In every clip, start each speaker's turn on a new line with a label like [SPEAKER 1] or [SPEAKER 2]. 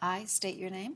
[SPEAKER 1] I state your name.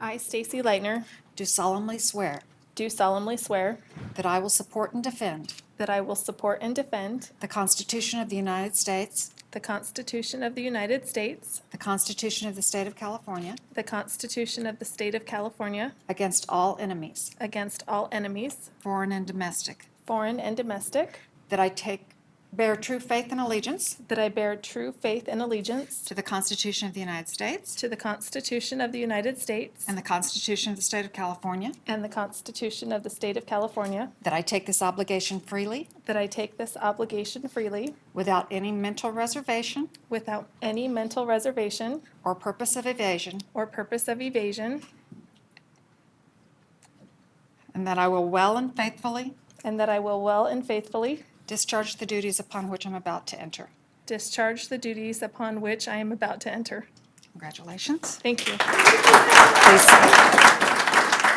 [SPEAKER 2] I, Stacy Lightner,
[SPEAKER 1] Do solemnly swear
[SPEAKER 2] do solemnly swear
[SPEAKER 1] that I will support and defend
[SPEAKER 2] that I will support and defend
[SPEAKER 1] the Constitution of the United States,
[SPEAKER 2] the Constitution of the United States,
[SPEAKER 1] the Constitution of the State of California,
[SPEAKER 2] the Constitution of the State of California,
[SPEAKER 1] against all enemies,
[SPEAKER 2] against all enemies,
[SPEAKER 1] foreign and domestic,
[SPEAKER 2] foreign and domestic,
[SPEAKER 1] that I take, bear true faith and allegiance
[SPEAKER 2] that I bear true faith and allegiance
[SPEAKER 1] to the Constitution of the United States
[SPEAKER 2] to the Constitution of the United States
[SPEAKER 1] and the Constitution of the State of California,
[SPEAKER 2] and the Constitution of the State of California,
[SPEAKER 1] that I take this obligation freely
[SPEAKER 2] that I take this obligation freely
[SPEAKER 1] without any mental reservation
[SPEAKER 2] without any mental reservation
[SPEAKER 1] or purpose of evasion,
[SPEAKER 2] or purpose of evasion,
[SPEAKER 1] and that I will well and faithfully
[SPEAKER 2] and that I will well and faithfully
[SPEAKER 1] discharge the duties upon which I'm about to enter.
[SPEAKER 2] Discharge the duties upon which I am about to enter.
[SPEAKER 1] Congratulations.
[SPEAKER 2] Thank you.
[SPEAKER 1] Please sign.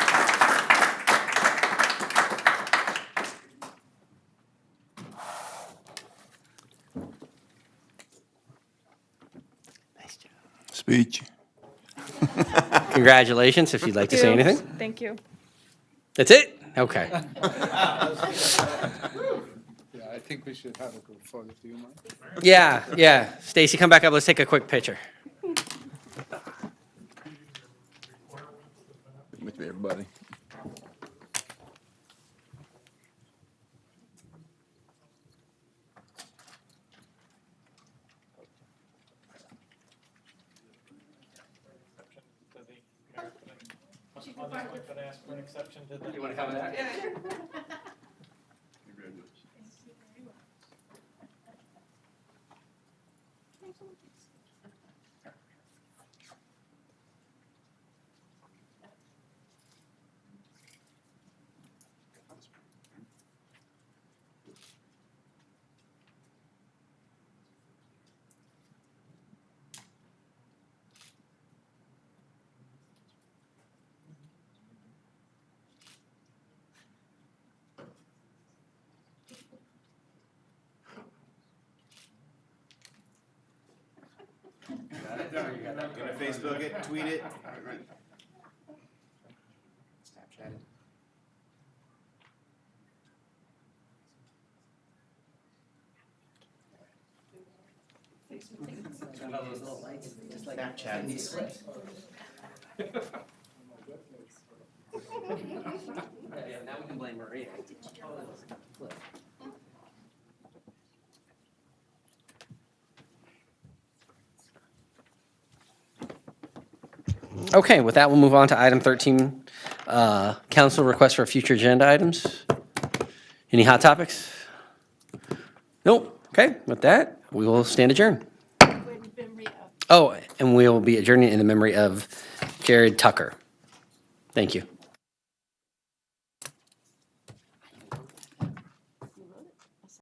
[SPEAKER 3] Speech.
[SPEAKER 4] Congratulations, if you'd like to say anything.
[SPEAKER 2] Thank you.
[SPEAKER 4] That's it? Okay.
[SPEAKER 5] Yeah, I think we should have a group photo, do you mind?
[SPEAKER 4] Yeah, yeah. Stacy, come back up. Let's take a quick picture.
[SPEAKER 3] With me, everybody.
[SPEAKER 6] But I asked for an exception to the.
[SPEAKER 7] Gonna Facebook it, tweet it. Snapchat it. Snapchat.
[SPEAKER 4] Now we can blame Maria. Okay, with that, we'll move on to item 13, uh, council request for future agenda items. Any hot topics? Nope. Okay, with that, we will stand adjourned. Oh, and we will be adjourning in the memory of Jared Tucker. Thank you.